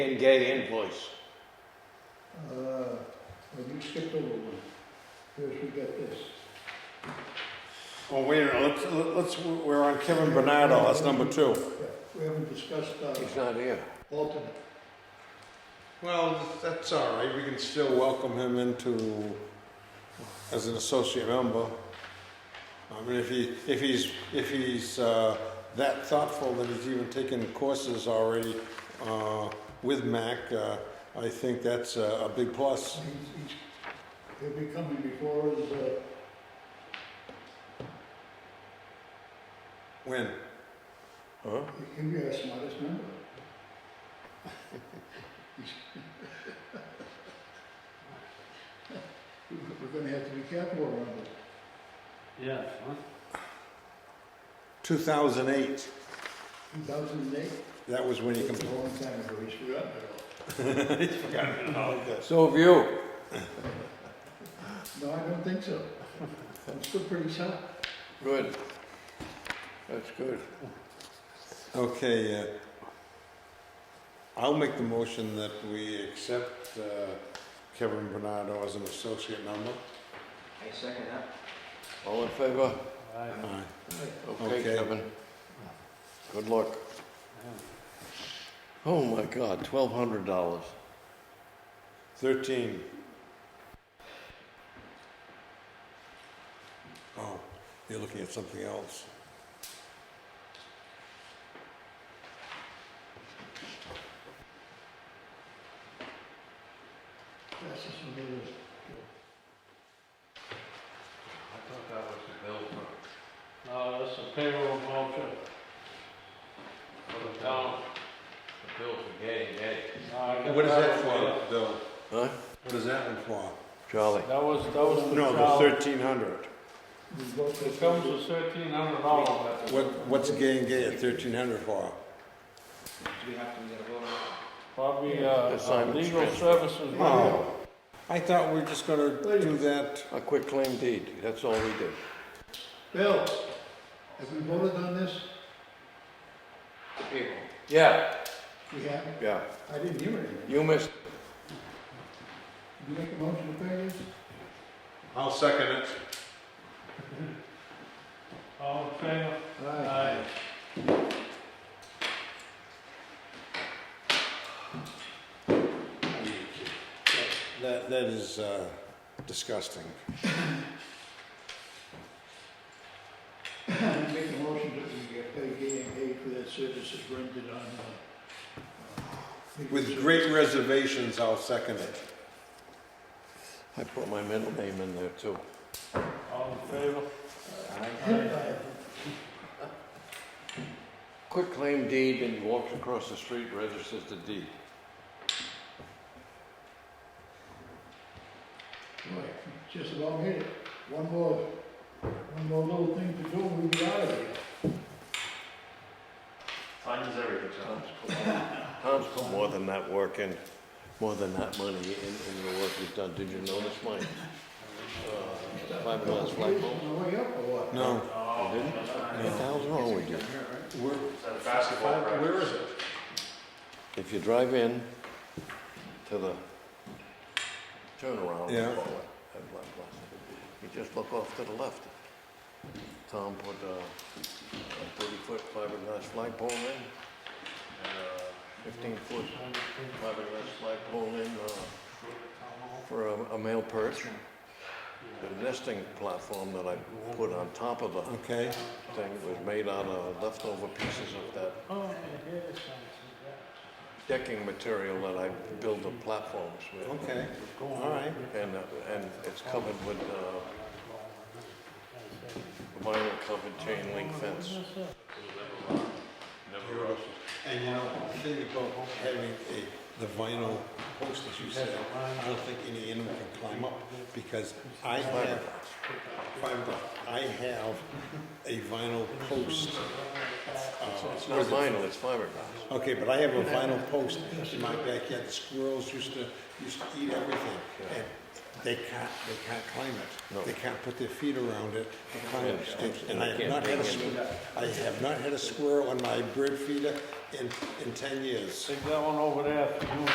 And gay invoice. Uh, well, you skipped over one. First, we got this. Well, wait a minute, let's- let's, we're on Kevin Bernardo, that's number two. Yeah, We haven't discussed He's uh, not here. alternate. Well, that's all right, we can still welcome him into, as an associate member. I mean, if he, if he's, if he's uh, that thoughtful that he's even taken courses already uh, with Mac, uh, I think that's a a big plus. He's, he's, he'll be coming before his, uh, When? Huh? he'll be our smartest member. He's- We're gonna have to be careful around him. Yeah, huh? 2008, Two thousand and eight, that was when he that's a completed. long time ago, he's forgotten it all. So have you. No, I don't think so. I'm still pretty sharp. Good. That's good. Okay, uh, I'll make the motion that we accept uh, Kevin Bernardo as an associate I member. second that. All in favor? Aye. Aye. Okay, Okay. Kevin. Good luck. Oh my God, twelve hundred dollars. 13. Oh, you're looking at something else. That's just what it is. I thought that was the bill for, No, that's a payroll voucher for for the the town. town, the bill for getting gay. What is that for, Bill? Huh? What is that one for? Charlie. That was, that was the No, trial. the 1,300. We vote It for- comes to thirteen hundred dollars. What, what's gay and gay at 1,300 for? Do we have to get a vote on that? Probably, uh, uh, Assignment legal transfer. services. Oh, I thought we were just gonna Wait a do that. A quick claim deed. That's all we did. Bill, have we voted on this? April. Yeah. We have? Yeah. I didn't hear anything. You missed. You make a motion to pay this? I'll second it. All in favor? Aye. That, that is uh, disgusting. I Make a motion that we get paid Gay and Gay for their services rendered on, uh. uh, With great reservations, I'll second it. I put my middle name in there too. All in favor? Aye. Quick claim deed and walks across the street, registers the deed. Boy, Just about hit it. One more, one more little thing to do, we'll be out of here. Time is everything, Tom's put, Tom's put more than that work in, more than that money in, in the work he's done. Did you notice mine? Uh, Fiberglass flagpole. On the way up or what? No, Oh, You didn't? What the hell's wrong with you? we're, basketball where is it? If you drive in to the turnaround. oh, Yeah. blah, blah, blah, blah, blah, You just look off to the left. Tom put uh, a thirty-foot fiberglass flagpole in, and a fifteen-foot fiberglass flagpole in, uh, for a, a male perch. The nesting platform that I put on top of the Okay, thing was made out of leftover pieces of that Oh, yeah, it sounds decking material that I build the platforms with. okay, like that. all right. And, uh, and it's covered with, uh, vinyl covered chain link fence. And you know, the thing about having a, the vinyl post that you said, I don't think any animal can climb up because I have, fiberglass. I have a vinyl post. uh, It's not vinyl, it's fiberglass. Okay, but I have a vinyl post in my backyard, squirrels used to, used to eat everything. And They can't, they can't climb No. it. They can't put their feet around it. They can't- Yeah. And I have not had a, squirrel- I have not had a squirrel on my bird feeder in, in ten years. Take that one over there for you.